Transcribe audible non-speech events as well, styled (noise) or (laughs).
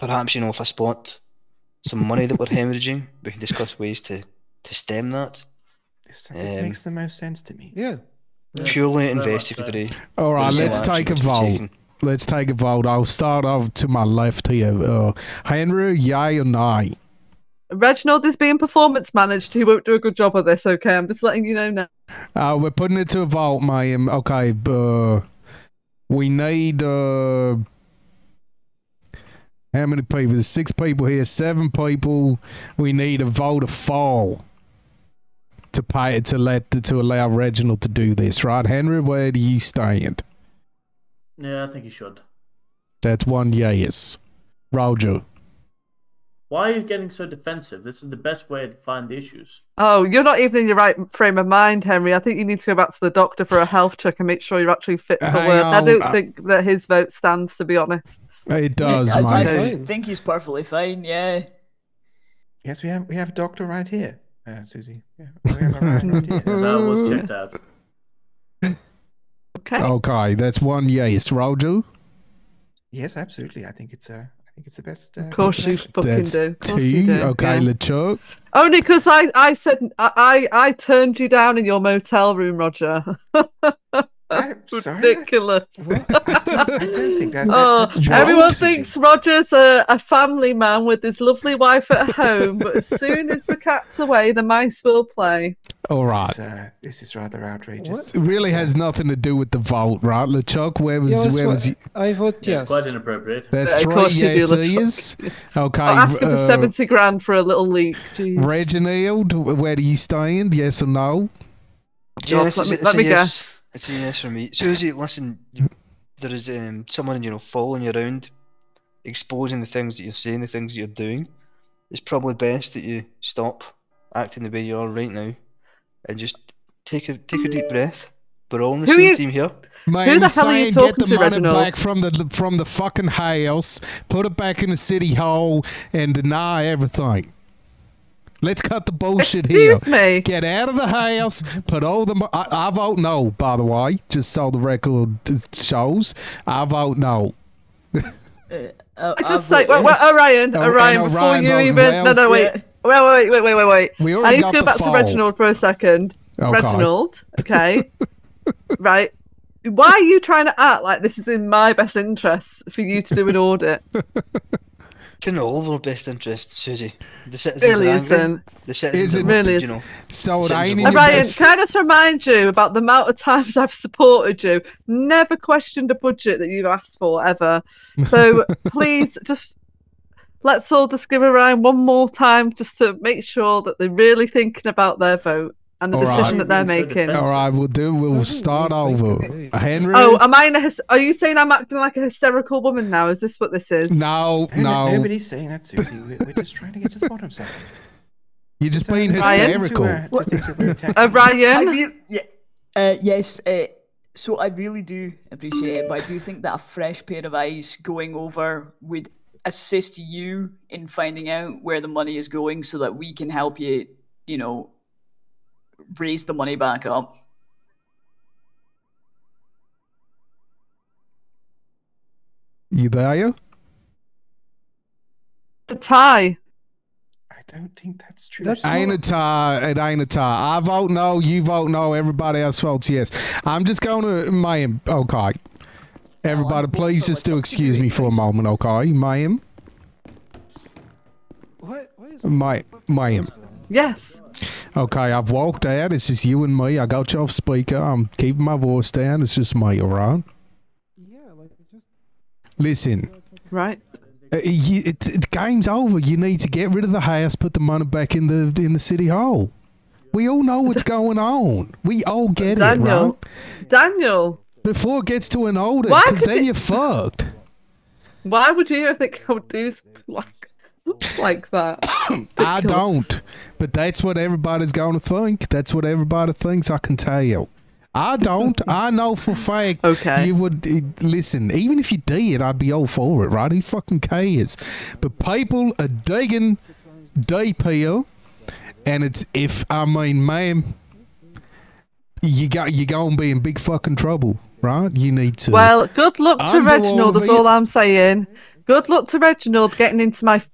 Perhaps you know if I spot some money that we're hemorrhaging, we can discuss ways to to stem that. This, this Um, makes the most sense to me. Yeah. Yeah, Purely very much investigatory. All right, There's no let's action take a to be vote. taken. Let's take a vote. I'll start off to my left here. Uh, Henry, yay or nay? Reginald is being performance managed. He won't do a good job of this, okay? I'm just letting you know now. Uh, we're putting it to a vote, ma'am. Okay, uh, we need uh, how many people? There's six people here, seven people. We need a vote of four to pay to let to allow Reginald to do this, right? Henry, where do you stand? Yeah, I think you should. That's one yes. Roger. Why are you getting so defensive? This is the best way to find the issues. Oh, you're not even in your right frame of mind, Henry. I think you need to go back to the doctor for a health check and make sure you're actually fit for Hang work. I on, don't I- think that his vote stands, to be honest. It does, I- mate. I- Fine. think he's perfectly fine. Yeah. Yes, we have we have a doctor right here, uh, Susie. Yeah, we have a right right here. That was checked out. Okay. (laughs) Okay, that's one yes. Roger. Yes, absolutely. I think it's uh, I think it's the best. Uh, Of course you best- fucking That's do. Of course two. you do. Okay, yeah. LeChuck. Only because Oh, I, I said I, I I turned you down in your motel room, Roger. (laughs) I'm sorry. I- Ridiculous. I don't think that's. (laughs) Oh, that's wrong, everyone Susie. thinks Roger's a, a family man with his lovely wife at home, but as soon as the cat's away, the mice will play. All right. This, is, uh, this is rather outrageous. It really has nothing to do with the vote, right? LeChuck, where was Yeah, that's where what- was you? I vote Yeah, yes. It's quite inappropriate. That's Of three course you do, yes LeChuck. years. Okay. I'm asking for uh, 70 grand for a little leak. Jeez. Reginald, where do you stand? Yes or no? Yeah, God, this let is- me- it's let a me yes. guess. It's a yes from me. Susie, listen, you- there is um, someone you know following you around, exposing the things that you're saying, the things that you're doing. It's probably best that you stop acting the way you are right now, and just take a take a deep breath. We're all on the Who same you- team here. Man, the hell are you say talking get the to, money Reginald? back from the from the fucking house, put it back in the city hall, and deny everything. Let's cut the bullshit here. Excuse me. Get out of the house. Put all the. mo- I, I vote no. By the way, just so the record shows, I vote no. Uh, I just say, well, well, Orion, Oh, Orion, and before Orion you voted even. well. No, no, wait. Yeah. Wait, wait, wait, wait, wait, wait. We I already need got to go the back fall. Oh, to Reginald for a second. Okay. Reginald, (laughs) okay. right. Why are you trying to act like this is in my best interests for you to do an audit? It's in all of our best interest, Susie. The citizens really are angry. isn't. The citizens Is are it- really Really you isn't. know. So it Sounds ain't a in lot your Well, Ryan, best. can I just remind you about the amount of times (laughs) I've supported you? Never questioned a budget that you've asked for ever. (laughs) So please just let's all just give Ryan one more time just to make sure that they're really thinking about their vote and the All right. decision that they're making. All All right, we'll do. We'll start over. Henry. Oh, am I in a hys- are you saying I'm acting like a hysterical woman now? Is this what this is? no, No, no, no. Nobody's saying that, Susie. We're, we're just trying to get to the bottom of something. You're just being Ryan? hysterical. To, uh, to think that we're attacking- Uh, I Ryan, really, yeah. Uh, yes. Uh, so I really do appreciate it, but I do think that a fresh pair of eyes going over would assist you in finding out where the money is going, so that we can help you. You know, raise the money back up. You there? the tie. I don't think that's true. That's Susie. Ain't a tie. It ain't a tie. I vote no. You vote no. Everybody else votes yes. I'm just going to, ma'am. Okay. Everybody, vote please for just do myself. excuse me for a moment, okay? Ma'am? What? What is Ma- ma'am. Yes. Okay, I've walked out. It's just you and me. I got you off speaker. I'm keeping my voice down. It's just me, all right? Yeah, like just Listen. Right. Uh, you, it, it, game's over. You need to get rid of the house, put the money back in the in the city hall. We all know what's going on. We all get it, right? Daniel. Daniel. Before it gets to an order, Why because could then you- you're fucked. Why would you (laughs) ever think I would do something like (laughs) (laughs) like that? I Ridiculous. don't, but that's what everybody's going to think. That's what everybody thinks. I can tell. I don't. (laughs) I know for a fact. Okay. You would eh, listen. Even if you did, I'd be all for it, right? Who fucking cares? But people are digging deep here, and it's if I mean, ma'am, you got you gonna be in big fucking trouble, right? You need to. Well, good luck to I'm the one Reginald. That's being- all I'm saying. Good luck to Reginald getting into my